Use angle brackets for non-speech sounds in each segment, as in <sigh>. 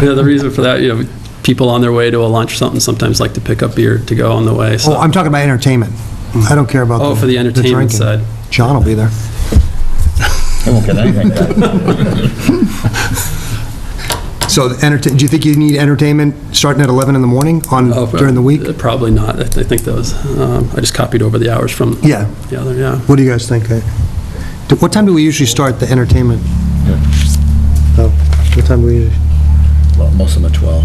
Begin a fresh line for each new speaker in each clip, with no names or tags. You know, the reason for that, you know, people on their way to a lunch or something sometimes like to pick up beer to go on the way,
Oh,
so.
I'm talking about entertainment. I don't care about the
Oh, for the entertainment
drinking.
side.
John will be there.
I won't get anything done.
<laughs> So entertain, do you think you need entertainment starting at 11 in the morning on,
Oh,
during the week?
uh, Probably not. I th- I think those, um, I just copied over the hours from
Yeah.
the other, yeah.
What do you guys think? Uh, do- What time do we usually start the entertainment? Oh, What time do we, usually-
Well, most of them are 12.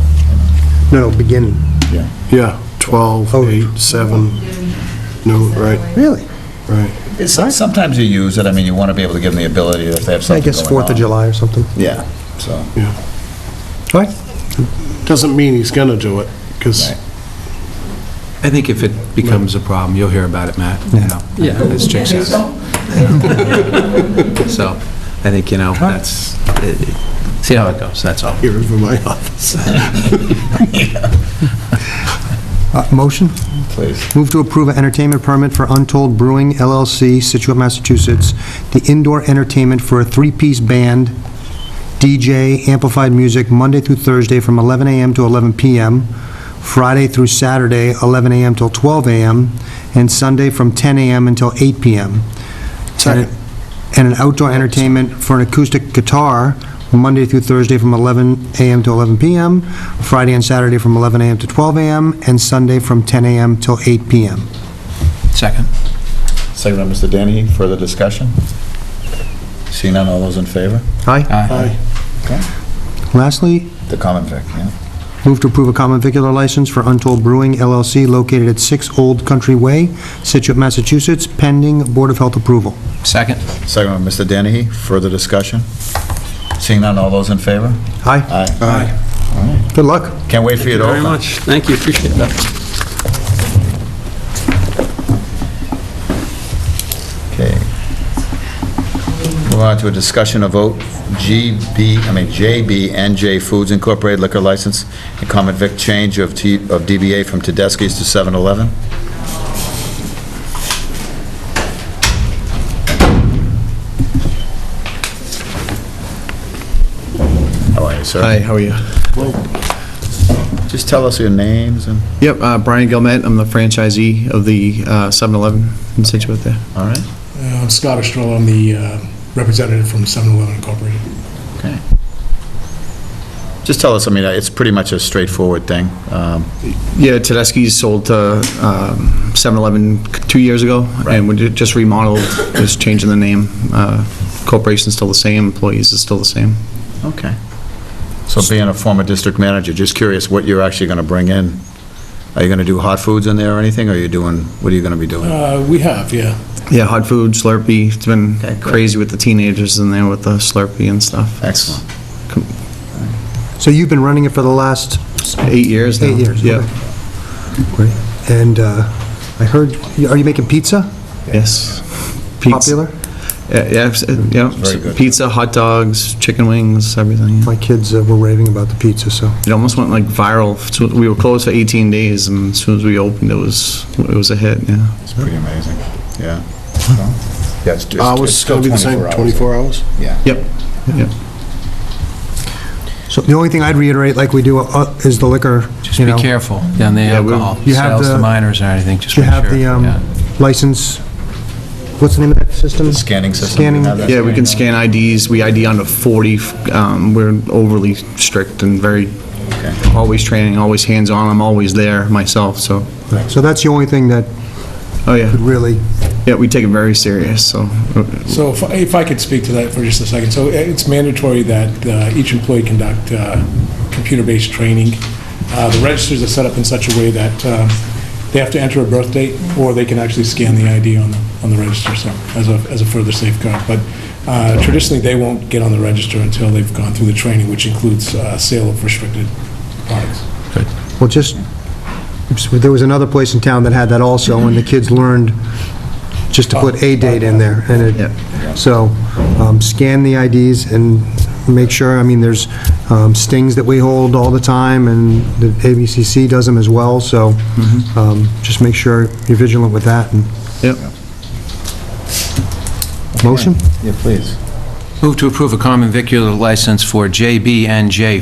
no, no, beginning.
Yeah.
Yeah, 12,
Oh.
8, 7, noon, right,
Really?
right.
It's- Sometimes you use it, I mean, you want to be able to give them the ability if they have
I
something
guess
going
4th of
on.
July or something.
Yeah, so,
All right.
Doesn't mean he's going to do it, because
Right.
I think if it becomes a problem, you'll hear about it, Matt. you know.
Yeah.
As Jim says. So, I think, you know, that's, it- it- see how it goes, that's all.
here over my <laughs> office.
Uh, Motion?
please.
Move to approve an entertainment permit for Untold Brewing LLC, Situate, Massachusetts, the indoor entertainment for a three-piece band, DJ, amplified music, Monday through Thursday from 11 a.m. to 11 p.m., Friday through Saturday, 11 a.m. till 12 a.m., and Sunday from 10 a.m. until 8 p.m. Second. And an outdoor entertainment for an acoustic guitar, Monday through Thursday from 11 a.m. to 11 p.m., Friday and Saturday from 11 a.m. to 12 a.m., and Sunday from 10 a.m. till 8 p.m.
Second.
Second by Mr. Danahy, further discussion? Seeing none, all those in favor?
Aye.
Aye.
Lastly,
The common vic, yeah?
move to approve a common vicular license for Untold Brewing LLC located at 6 Old Country Way, Situate, Massachusetts, pending Board of Health approval.
Second.
Second by Mr. Danahy, further discussion? Seeing none, all those in favor?
Aye.
Aye.
Good luck.
Can't wait for you to
Very
open.
much. Thank you, appreciate that.
Okay. Move on to a discussion of vote, GB, I mean, JBNJ Foods Incorporated liquor license and common vic change of T- of DBA from Tedeschi's to 7-Eleven. How are you, sir?
Hi, how are you?
Just tell us your names and,
Yep, uh, Brian Gilmet, I'm the franchisee of the uh, 7-Eleven in Situate there.
all right?
Uh, I'm Scott Ostrell, I'm the uh, representative from 7-Eleven Incorporated.
Okay. Just tell us, I mean, it's pretty much a straightforward thing. Um,
Yeah, Tedeschi's sold to um, 7-Eleven c- two years ago,
Right.
and we ju- just remodeled, just changing the name. Uh, Corporation's still the same, employees is still the same.
Okay. So being a former district manager, just curious what you're actually going to bring in. Are you going to do hot foods in there or anything, or are you doing, what are you going to be doing?
Uh, We have, yeah.
Yeah, hot food, Slurpee, it's been
Okay, good.
crazy with the teenagers in there with the Slurpee and stuff.
Excellent.
So you've been running it for the last
Eight years now.
eight years?
Yeah.
okay. Great. And uh, I heard, are you making pizza?
Yes. Pizza-
Popular?
Yeah, Yeah, s- yeah.
Very good.
Pizza, hot dogs, chicken wings, everything. yeah.
My kids uh, were raving about the pizza, so.
It almost went like viral. So We were closed for 18 days, and as soon as we opened, it was, it was a hit, yeah.
It's pretty amazing, yeah. Yeah, it's- it's- it's
Hours,
still
going to be the same, 24 hours?
Yeah.
Yep, yep.
So the only thing I'd reiterate, like we do, uh, is the liquor,
Just
you
be
know.
careful down the
Yeah, we-
alcohol,
you have
sales
the-
to minors or anything, just
You
make sure.
have the
yeah.
um, license, what's the name of that system?
The Scanning system.
Scanning.
Now that's-
Yeah, we can scan IDs, we ID under 40, um, we're overly strict and very, always training, always hands-on, I'm always there myself, so,
So that's the only thing that
oh yeah,
could really,
yeah, we take it very serious, so, uh,
So if- if I could speak to that for just a second. So it's mandatory that uh, each employee conduct uh, computer-based training. Uh, The registers are set up in such a way that um, they have to enter a birth date, or they can actually scan the ID on the on the register, so, as a as a further safeguard. But uh, traditionally, they won't get on the register until they've gone through the training, which includes uh, sale of restricted products.
well, just, there was another place in town that had that also, and the kids learned just to put a date in there, and
Yeah.
it, so um, scan the IDs and make sure, I mean, there's um, stings that we hold all the time, and the ABCC does them as well, so um, just make sure you're vigilant with that. and-
yep.
Motion?
Yeah, please.
Move to approve a common vicular license for JB and J